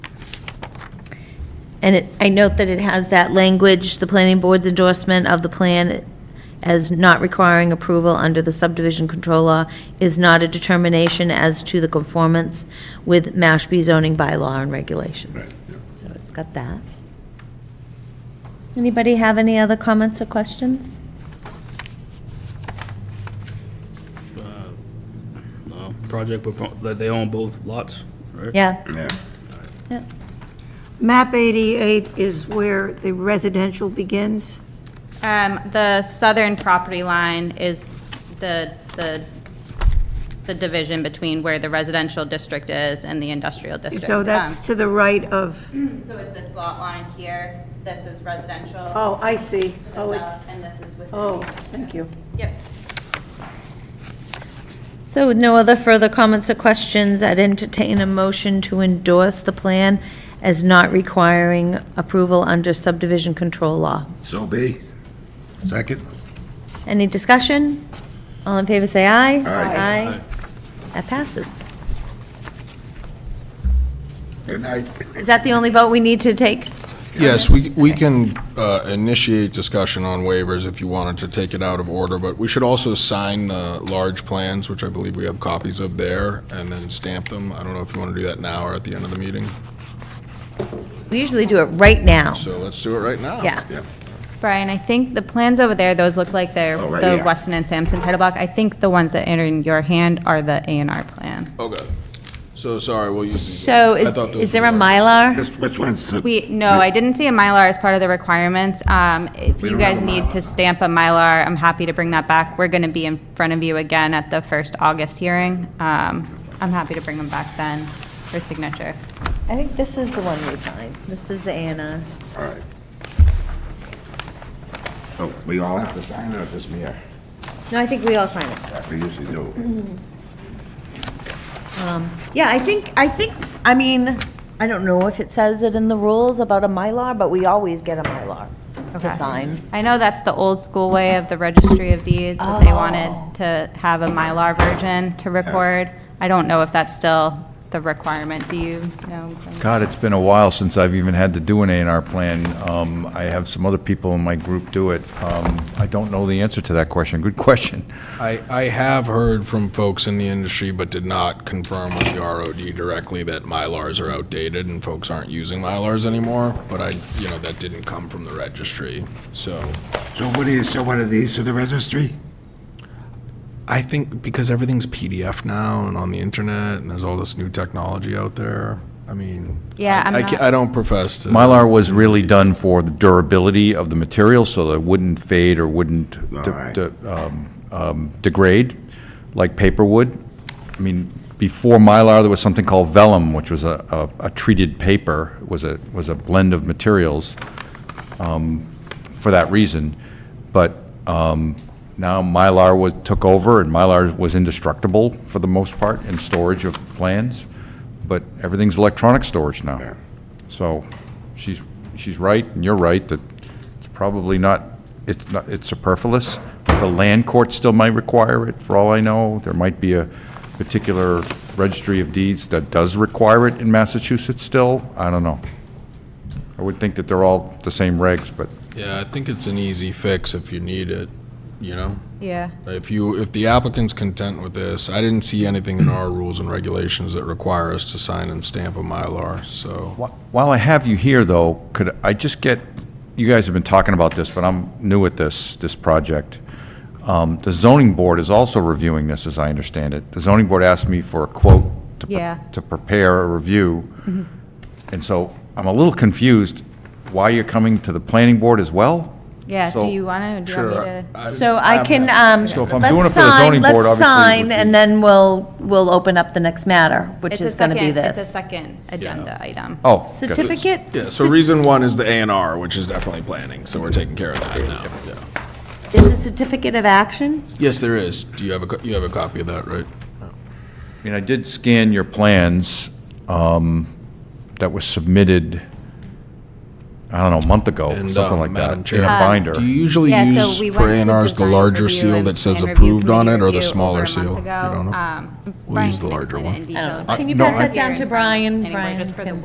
And it, I note that it has that language, the planning board's endorsement of the plan as not requiring approval under the subdivision control law is not a determination as to the conformance with Mashpee zoning bylaw and regulations. So it's got that. Anybody have any other comments or questions? uh, project propo- that they own both lots, right? Yeah, Yeah. yeah, Map 88 is where the residential begins. Um, the southern property line is the, the, the division between where the residential district is and the industrial district. So that's Um, to the right of, So it's this lot line here, this is residential. oh, I see. to the Oh, it's, south, And this is within. oh, thank you. Yep. So with no other further comments or questions, I'd entertain a motion to endorse the plan as not requiring approval under subdivision control law. So be. Second? Any discussion? All in favor, say aye. Aye. That passes. Good night. Is that the only vote we need to take? Yes, we, we can uh, initiate discussion on waivers if you wanted to take it out of order, but we should also sign the large plans, which I believe we have copies of there, and then stamp them. I don't know if you want to do that now or at the end of the meeting. We usually do it right now. So let's do it right now. Yeah. Brian, I think the plans over there, those look like they're Oh, right the the here. Weston Weston and Sampson title block. I think the ones that enter in your hand are the A and R plan. Okay. So, sorry, will you? So is, I thought those is there were a Mylar? large. This- Which one's the? We, no, I didn't see a Mylar as part of the requirements. Um, If We you don't have guys a need to Mylar. stamp a Mylar, I'm happy to bring that back. We're going to be in front of you again at the first August hearing. Um, I'm happy to bring them back then for signature. I think this is the one we signed. This is the A and R. All right. So we all have to sign it or just me? No, I think we all signed it. We usually do. Yeah, I think, I think, I mean, I don't know if it says it in the rules about a Mylar, but we always get a Mylar to Okay. sign. I know that's the old school way of the Registry of Deeds, that they Oh. wanted to have a Mylar version to record. I don't know if that's still the requirement. Do you know? God, it's been a while since I've even had to do an A and R plan. Um, I have some other people in my group do it. Um, I don't know the answer to that question. Good question. I, I have heard from folks in the industry, but did not confirm with the ROD directly that Mylars are outdated and folks aren't using Mylars anymore, but I, you know, that didn't come from the registry, so. So what do you, so what are these to the registry? I think because everything's PDF now and on the internet, and there's all this new technology out there, I mean. Yeah, I- I'm I ca- not- I don't profess to. Mylar was really done for the durability of the material, so that it wouldn't fade or wouldn't de- Alright. de- um, um, degrade like paper would. I mean, before Mylar, there was something called vellum, which was a, a- a treated paper, was a, was a blend of materials um, for that reason. But um, now Mylar was, took over, and Mylar was indestructible for the most part in storage of plans, but everything's electronic storage now. So she's, she's right, and you're right, that it's probably not, it's not, it's superfluous. The land court still might require it, for all I know. There might be a particular registry of deeds that does require it in Massachusetts still. I don't know. I would think that they're all the same regs, but Yeah, I think it's an easy fix if you need it, you know? Yeah. If you, if the applicant's content with this, I didn't see anything in our rules and regulations that require us to sign and stamp a Mylar, so. wh- while I have you here, though, could I just get, you guys have been talking about this, but I'm new at this, this project. Um, The zoning board is also reviewing this, as I understand it. The zoning board asked me for a quote to pre- Yeah. to prepare a review. And so I'm a little confused why you're coming to the planning board as well? Yeah, do So- you want to, do you want me to? So I can, um, So if I'm doing it let's for the sign, zoning board, let's obviously it would sign, be- and then we'll, we'll open up the next matter, which It's a is gonna be second- this. It's a second agenda item. Oh. good. Certificate? Yeah, so reason one is the A and R, which is definitely planning, so we're taking care of that now. yeah. Is a certificate of action? Yes, there is. Do you have a, co- you have a copy of that, right? I mean, I did scan your plans um, that were submitted, I don't know, a month ago, And, something uh, like that. Madam in a Chair. binder. Do you usually Yeah, so use we for went A to and R's the design larger review seal and- that says and review approved on committee it or the review over smaller a month seal? You ago. don't know? Um, We'll Brian use the can larger explain it one. in detail, I don't know. but Can you we're pass not that down here to in Brian? anyway, Brian just for the can-